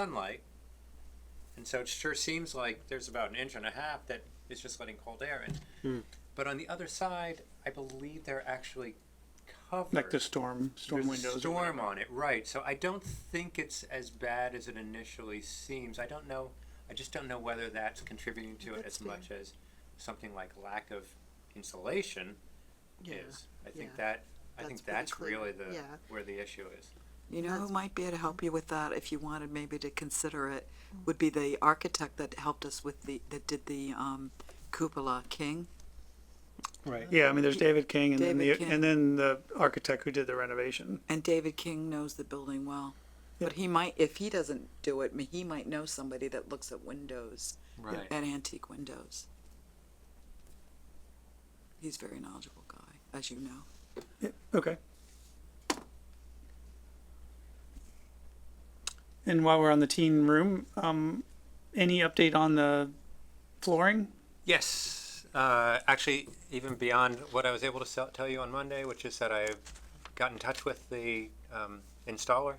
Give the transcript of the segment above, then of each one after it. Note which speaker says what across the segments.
Speaker 1: sunlight. And so it sure seems like there's about an inch and a half that is just letting cold air in.
Speaker 2: Hmm.
Speaker 1: But on the other side, I believe they're actually covered.
Speaker 2: Like the storm, storm
Speaker 1: There's a
Speaker 2: windows. or
Speaker 1: Storm
Speaker 2: whatever.
Speaker 1: on it, right. So I don't think it's as bad as it initially seems. I don't know. I just don't know whether that's contributing to it
Speaker 3: That's
Speaker 1: as much as something like lack of insulation is. I think
Speaker 3: yeah.
Speaker 1: that I
Speaker 3: That's
Speaker 1: think
Speaker 3: pretty
Speaker 1: that's
Speaker 3: clear.
Speaker 1: really the
Speaker 3: Yeah.
Speaker 1: where the issue is.
Speaker 4: You know who might be able to help you with that if you wanted maybe to consider it would be the architect that helped us with the that did the um, cupola King.
Speaker 2: Right, yeah, I mean, there's David King and then the,
Speaker 4: David King.
Speaker 2: and then the architect who did the renovation.
Speaker 4: And David King knows the building well. But he might if he doesn't do it, he might know somebody that looks at windows
Speaker 1: Right.
Speaker 4: at antique windows. He's a very knowledgeable guy, as you know.
Speaker 2: Yeah, okay. And while we're on the teen room, um, any update on the flooring?
Speaker 1: Yes, uh, actually, even beyond what I was able to sell, tell you on Monday, which is that I've got in touch with the um, installer,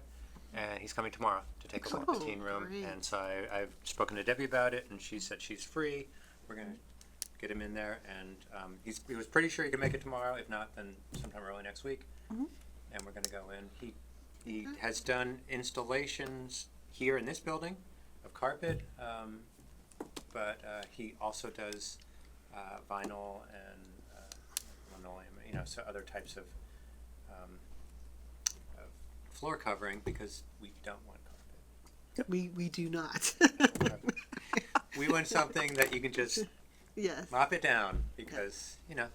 Speaker 1: and he's coming tomorrow to take a look at the
Speaker 3: Cool,
Speaker 1: teen room.
Speaker 3: great.
Speaker 1: And so I, I've spoken to Debbie about it, and she said she's free. We're gonna get him in there, and um, he's, he was pretty sure he could make it tomorrow. If not, then sometime early next week. And we're gonna go in. He he has done installations here in this building of carpet. Um, but uh, he also does uh, vinyl and uh, linoleum, you know, so other types of, um, of floor covering because we don't want carpet.
Speaker 3: We, we do not.
Speaker 1: We want something that you can just
Speaker 3: yes.
Speaker 1: mop it down because you know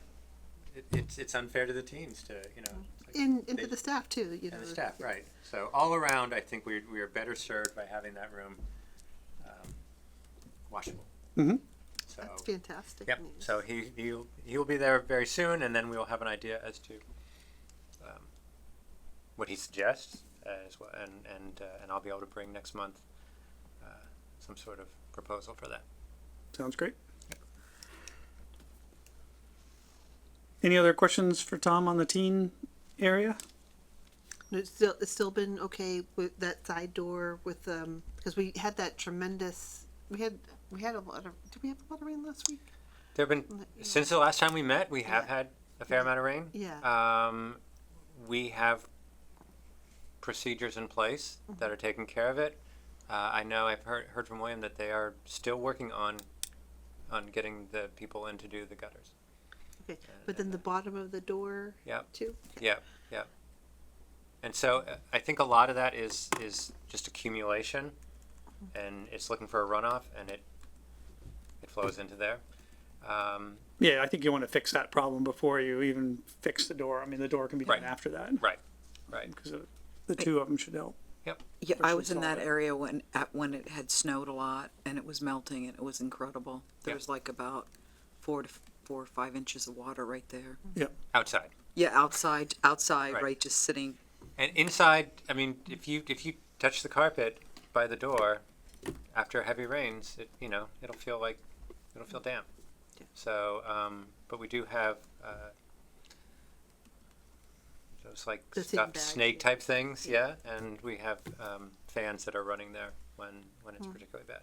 Speaker 1: it, it's it's unfair to the teens to you know. like,
Speaker 3: And, and
Speaker 1: they-
Speaker 3: to the staff too, you know.
Speaker 1: and the staff, right? So all around, I think we we are better served by having that room um, washable.
Speaker 2: Mhm.
Speaker 1: So
Speaker 3: That's fantastic.
Speaker 1: Yep.
Speaker 3: news.
Speaker 1: So he he'll, he'll be there very soon, and then we'll have an idea as to um, what he suggests as well, and and uh, and I'll be able to bring next month uh, some sort of proposal for that.
Speaker 2: Sounds great. Any other questions for Tom on the teen area?
Speaker 3: And It's still, it's still been okay with that side door with, um, because we had that tremendous, we had, we had a lot of, did we have a lot of rain last week?
Speaker 1: There have been
Speaker 3: Let-
Speaker 1: since the last time we met, we have
Speaker 3: Yeah.
Speaker 1: had a fair amount of rain.
Speaker 3: Yeah.
Speaker 1: Um, we have procedures in place
Speaker 3: Mm-hmm.
Speaker 1: that are taking care of it. Uh, I know I've heard heard from William that they are still working on on getting the people in to do the gutters.
Speaker 3: Okay, but then the bottom of the door
Speaker 1: Yep.
Speaker 3: too?
Speaker 1: Yeah, yeah. And so uh, I think a lot of that is is just accumulation, and it's looking for a runoff, and it it flows into there. Um,
Speaker 2: Yeah, I think you want to fix that problem before you even fix the door. I mean, the door can be done
Speaker 1: Right.
Speaker 2: after that
Speaker 1: right, right.
Speaker 2: because the two of them should help.
Speaker 4: Yeah, I
Speaker 2: Person
Speaker 4: was in
Speaker 2: saw
Speaker 4: that
Speaker 2: it.
Speaker 4: area when at, when it had snowed a lot and it was melting and it was incredible. There
Speaker 1: Yeah.
Speaker 4: was like about four to f- four or five inches of water right there.
Speaker 1: Outside
Speaker 4: Yeah, outside, outside,
Speaker 1: Right.
Speaker 4: right, just sitting.
Speaker 1: and inside. I mean, if you if you touch the carpet by the door after heavy rains, it you know it'll feel like it'll feel damp.
Speaker 3: Yeah.
Speaker 1: So, um, but we do have. Uh, those like
Speaker 3: The thin
Speaker 1: stuffed
Speaker 3: bag,
Speaker 1: snake
Speaker 3: yeah.
Speaker 1: type things, yeah. And we have um, fans that are running there when when
Speaker 3: Hmm.
Speaker 1: it's particularly bad.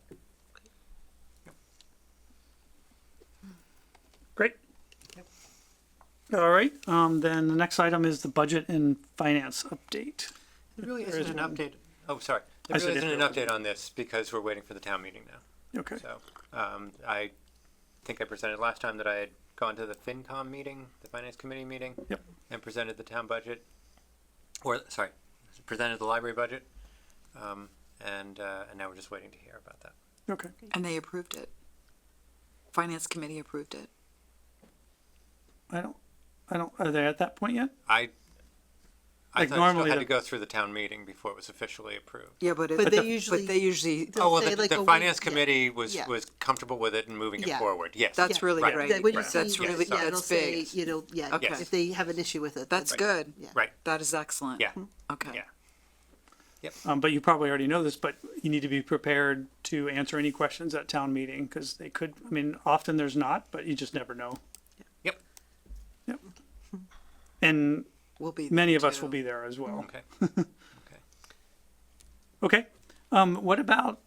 Speaker 2: Great. All right, um, then the next item is the budget and finance update.
Speaker 1: There really
Speaker 2: There
Speaker 1: isn't an
Speaker 2: isn't-
Speaker 1: update. Oh, sorry.
Speaker 2: I
Speaker 1: There
Speaker 2: said
Speaker 1: really
Speaker 2: if
Speaker 1: isn't an
Speaker 2: there
Speaker 1: update on this because we're waiting for the town meeting now.
Speaker 2: Okay,
Speaker 1: So um, I think I presented last time that I had gone to the FinCom meeting, the Finance Committee meeting,
Speaker 2: Yep.
Speaker 1: and presented the town budget, or sorry, presented the library budget, um, and uh, and now we're just waiting to hear about that.
Speaker 2: okay.
Speaker 4: And they approved it. Finance committee approved it.
Speaker 2: I don't, I don't, are they at that point yet?
Speaker 1: I I
Speaker 2: Like
Speaker 1: thought it
Speaker 2: normally
Speaker 1: still had
Speaker 2: the-
Speaker 1: to go through the town meeting before it was officially approved.
Speaker 4: Yeah, but it,
Speaker 3: But they
Speaker 4: but
Speaker 3: usually-
Speaker 4: they usually
Speaker 3: They'll
Speaker 1: Oh well,
Speaker 3: say
Speaker 1: the,
Speaker 3: like a
Speaker 1: the
Speaker 3: week-
Speaker 1: finance
Speaker 3: yeah.
Speaker 1: committee was
Speaker 3: Yeah.
Speaker 1: was comfortable with it and moving
Speaker 3: Yeah.
Speaker 1: it forward. Yes,
Speaker 4: that's really
Speaker 1: Right.
Speaker 4: great.
Speaker 3: That when you
Speaker 1: Right.
Speaker 4: That's
Speaker 3: see-
Speaker 4: really
Speaker 3: yeah, it'll
Speaker 4: that's big.
Speaker 3: say, You know, yeah,
Speaker 4: Okay.
Speaker 3: if they have an issue with it.
Speaker 4: that's
Speaker 3: then-
Speaker 4: good.
Speaker 3: Yeah.
Speaker 1: right.
Speaker 4: That is excellent.
Speaker 1: Yeah.
Speaker 3: Mm-hmm.
Speaker 4: Okay.
Speaker 1: Yeah.
Speaker 2: Um, but you probably already know this, but you need to be prepared to answer any questions at town meeting because they could, I mean, often there's not, but you just never know.
Speaker 1: Yep.
Speaker 2: Yep. And
Speaker 4: We'll be
Speaker 2: many
Speaker 4: there
Speaker 2: of us
Speaker 4: too.
Speaker 2: will be there as well.
Speaker 1: Okay.
Speaker 2: Okay, Um, what about